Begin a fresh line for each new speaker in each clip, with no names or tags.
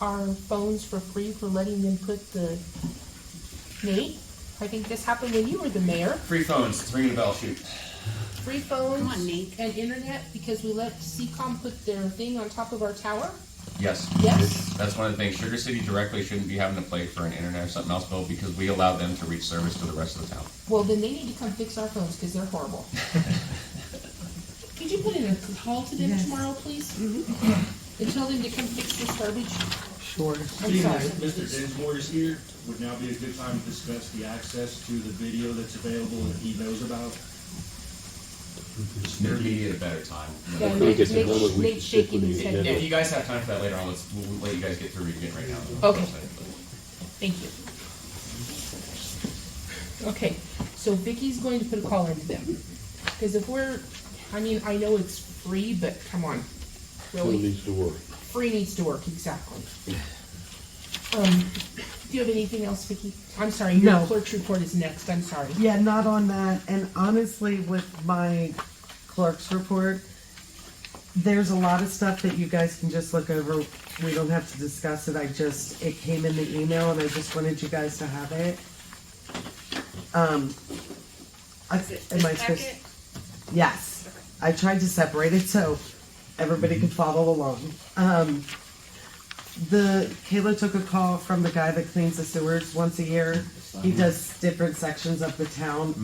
our phones for free for letting them put the, Nate, I think this happened when you were the mayor,
Free phones, it's ringing a bell, shoot.
free phones.
Come on, Nate.
And internet, because we let CCOM put their thing on top of our tower,
Yes.
yes?
That's one of the things, Sugar City directly shouldn't be having to play for an internet or something else bill because we allow them to reach service to the rest of the town.
Well, then they need to come fix our phones, cause they're horrible. Could you put in a call to them tomorrow, please? And tell them to come fix this garbage?
Sure.
I'm
Seeing
sorry.
as Mr. Dinsmore is here, would now be a good time to discuss the access to the video that's available that he knows about?
Sooner be at a better time.
Yeah,
think
Nate,
it's
Nate's-
another week
Nate's shaking
before
his
the
head.
agenda.
If you guys have time for that later on, let's, we'll let you guys get through reading it right now.
Okay. Thank you. Okay, so Vicky's going to put a call into them, because if we're, I mean, I know it's free, but come on,
Still
really,
needs to work.
free needs to work, exactly. Um, do you have anything else, Vicky? I'm sorry, your
No.
clerk's report is next, I'm sorry.
Yeah, not on that. And honestly, with my clerk's report, there's a lot of stuff that you guys can just look over. We don't have to discuss it. I just, it came in the email and I just wanted you guys to have it. Um, I,
Is it
am I
this
supposed?
packet?
Yes. I tried to separate it so everybody could follow along. Um, the Kayla took a call from the guy that cleans the sewers once a year. He does different sections of the town.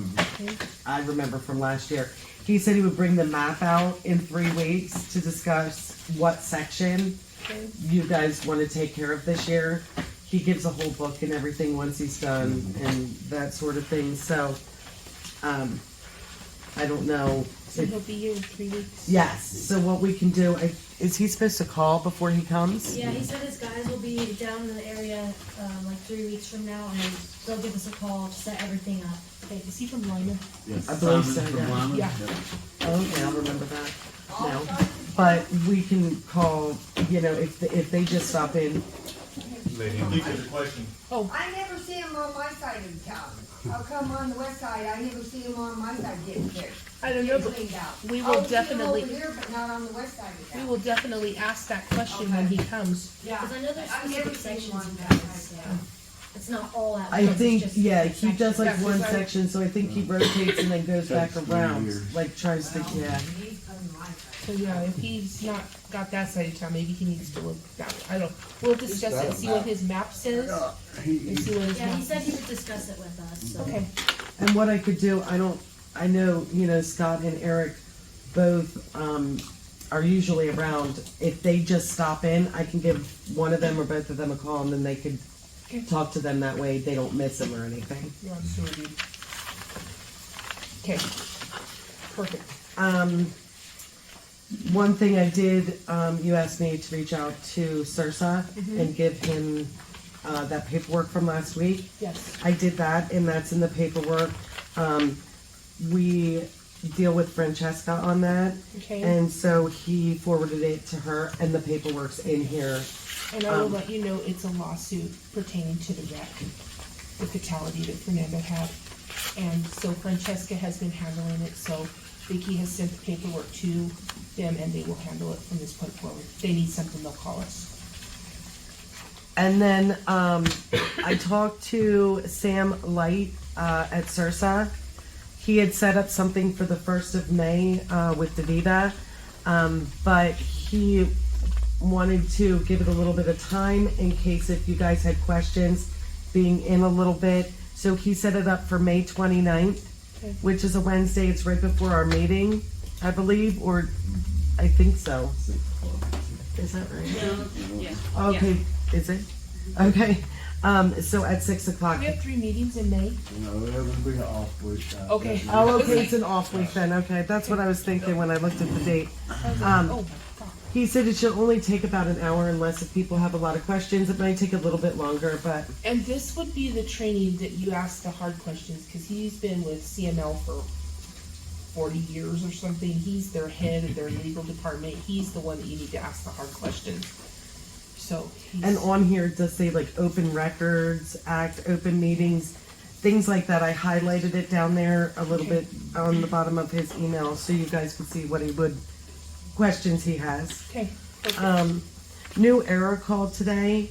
I remember from last year. He said he would bring the map out in three weeks to discuss what section you guys want to take care of this year. He gives a whole book and everything once he's done and that sort of thing. So, um, I don't know.
So
if-
he'll be here in three weeks.
Yes, so what we can do, I- is he supposed to call before he comes?
Yeah, he said his guys will be down in the area um, like three weeks from now, and they'll give us a call to set everything up.
Okay, is he from Lima?
I believe so,
Simon from
yeah.
Wyman?
Yeah.
Okay, I'll remember that. No, but we can call, you know, if, the- if they just stop in,
I think there's a question.
I never see him on my side of town. I'll come on the west side, I never see him on my side getting fixed,
I don't know,
getting
but
cleaned out.
we will definitely-
I see him over here, but not on the west side of
we
town.
will definitely ask that question when he comes.
Yeah,
Because I know there's
I've
specific
never seen
sections
one
of
that
that,
side
so
down.
it's not all at
I
once, it's
think,
just
yeah, he
sections.
does like
Yeah,
one
'cause I-
section, so I think he rotates and then goes back
Takes
around,
years.
like tries to, yeah.
He's on my side.
So yeah, if he's not got that side of town, maybe he needs to look that way. I don't, we'll discuss
got
it,
a
see what
map.
his map says, and see what his
Yeah,
map.
he said he would discuss it with us, so.
Okay,
And what I could do, I don't, I know, you know, Scott and Eric both um, are usually around. If they just stop in, I can give one of them or both of them a call and then they could
Okay.
talk to them that way. They don't miss them or anything.
you're on sewer duty. Okay, perfect.
Um, one thing I did, um, you asked me to reach out to Sirsa and give him uh, that paperwork from last week.
Yes,
I did that, and that's in the paperwork. Um, we deal with Francesca on that.
Okay.
And so he forwarded it to her, and the paperwork's in here.
and I
Um,
will let you know it's a lawsuit pertaining to the wreck, the fatality that Fernando had. And so Francesca has been handling it, so Vicky has sent the paperwork to them and they will handle it from this point forward. If they need something, they'll call us.
And then um, I talked to Sam Light uh, at Sursa. He had set up something for the 1st of May uh, with Davida, um, but he wanted to give it a little bit of time in case if you guys had questions, being in a little bit. So he set it up for May 29th,
Okay.
which is a Wednesday. It's right before our meeting, I believe, or I think so. Is that right?
Yeah.
Okay, is it? Okay, um, so at six o'clock.
We have three meetings in May.
No, that would be an off week. uh,
Okay.
that's-
Oh, okay, it's an off week then, okay, that's what I was thinking when I looked at the date. Um,
Oh, my God.
He said it should only take about an hour unless if people have a lot of questions, it might take a little bit longer, but
And this would be the training that you ask the hard questions, because he's been with CML for forty years or something. He's their head of their legal department. He's the one that you need to ask the hard questions. So he's.
And on here it does say like Open Records Act, open meetings, things like that. I highlighted it down there a little
Okay.
bit on the bottom of his email so you guys can see what he would, questions he has.
Okay. perfect.
Um, new era called today.